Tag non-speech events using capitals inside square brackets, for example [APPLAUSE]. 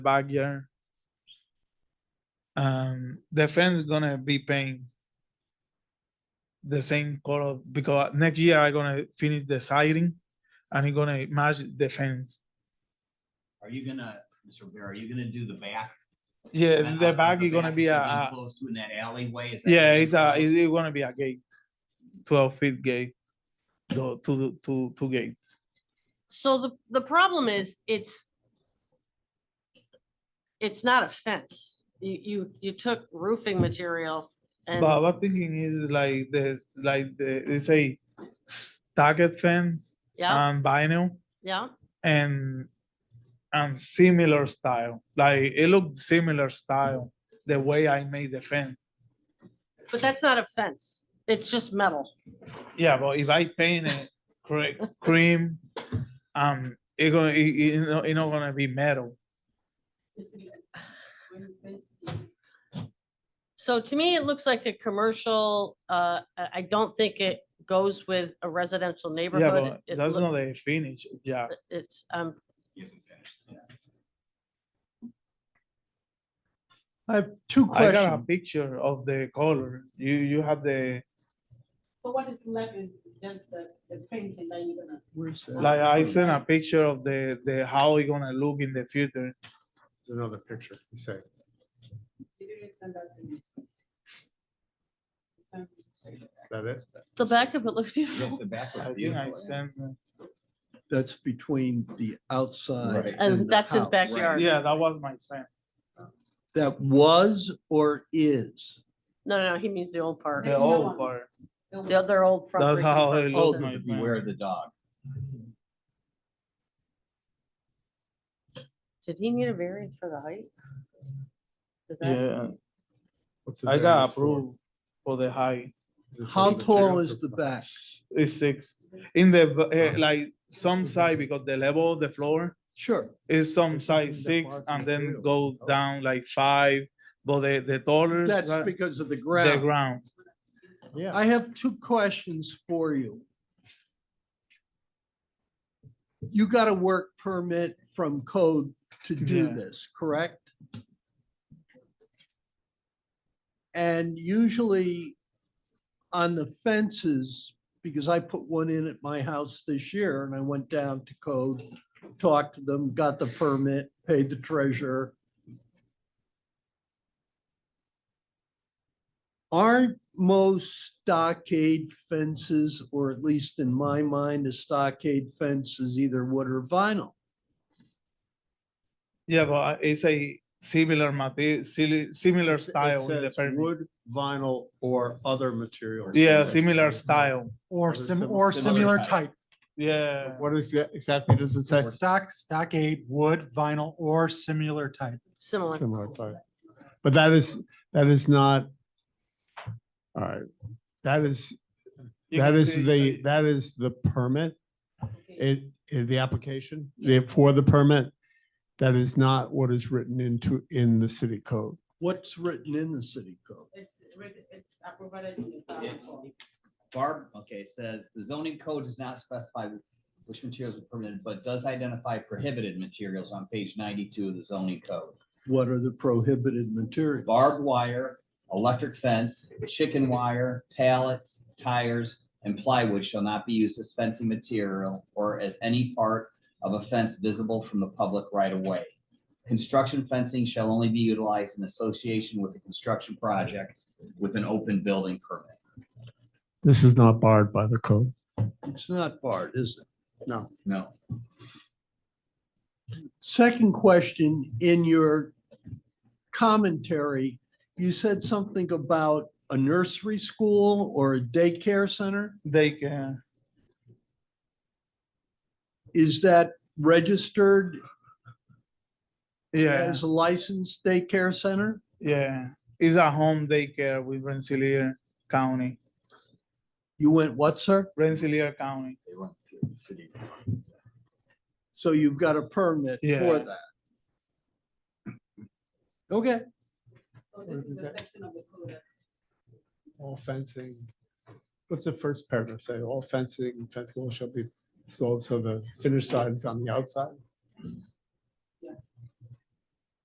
backyard. Um, the fence gonna be paying the same color because next year I gonna finish the siding and it gonna match the fence. Are you gonna, Mr. Rivera, are you gonna do the back? Yeah, the out- back is gonna back be a, that leads a- Close to in that alleyway? Is that yeah, uh, gonna be it's a, closed? it's it gonna be a gate, twelve feet gate, so two, two, two gates. So the, the problem is, it's, it's not a fence. You, you, you took roofing material But and, what thinking is like the, like the, they say target fence yeah, and vinyl. yeah. and and similar style. Like it looked similar style the way I made the fence. But that's not a fence. It's just metal. Yeah, but if I paint it cre- cream, um, it gonna it, it, not, it not gonna be metal. So to me, it looks like a commercial, uh, I, I don't think it goes with a residential Yeah, neighborhood. but It that's look- not the finish. Yeah, It's, um, He hasn't [LAUGHS] finished. Yeah. I have two I got a questions. picture of the color. You you have the So what is left is just the, the painting that you're gonna. like I sent a picture of the the how it gonna look in the future. There's another picture, you say. you didn't send that to me. Um, Is that it? the back of it looks Yes, beautiful. the back I was think I beautiful, yeah. sent. That's between the outside. Right. [LAUGHS] And the that's his house. backyard. Yeah, that was my friend. That was or is? No, no, no, he means the old part. The Yeah. old part. the- The other old front. That's brick how it apartment is- Oh, looked. this my is friend. Beware of the dog. Did he need a variance for the height? Did that- Yeah, What's the I got variance for? approved for the height. Is it for How the tall materials is or the for- back? is six. In the, v- Uh-huh. eh, like, some side, because the level of the floor Sure. is some Mm-hmm. It's in size the six, parts and then material. Oh. go down like five, but the, the taller. That's side- because of the The ground. ground, Yeah. I have two questions for you. You got a work permit from code to do Yeah. this, correct? And usually on the fences, because I put one in at my house this year and I went down to code, talked to them, got the permit, paid the treasurer. Aren't most stockade fences, or at least in my mind, a stockade fence is either wood or vinyl? yeah, but uh, it's a similar material, similar style. in It the says permit. Wood, vinyl, or other material. Yeah, similar style, Or Or sim, sim- or similar similar type, yeah. What is, that- exactly does it say? stock, stockade, wood, vinyl, or similar type. Similar. Similar type. But that is, that is not. All right, that is, You that can is see, the, like, that is the permit, okay. it, in the application, the- for the permit. That is not what is written into, in the city code. What's written in the city code? It's, writ- it's, I provided you the staff Yeah. report. Barb, okay, it says the zoning code does not specify which materials are permitted, but does identify prohibited materials on page ninety-two of the zoning code. What are the prohibited materials? Barbed wire, electric fence, chicken wire, pallets, tires, and plywood shall not be used as fencing material or as any part of a fence visible from the public right of way. Construction fencing shall only be utilized in association with a construction project with an open building permit. This is not barred by the code. It's not barred, is it? No. No. Second question, in your commentary, you said something about a nursery school or a daycare center? They can, Is that registered yeah, as a licensed daycare center? yeah, it's a home daycare with Rensselaer County, You went what, sir? Rensselaer County, They run through the city. So you've got a permit Yeah. for that. Okay, So this is the section of the code that All fencing. What's the first paragraph say? All fencing, and fence walls shall be sold, so the finished side is on the outside?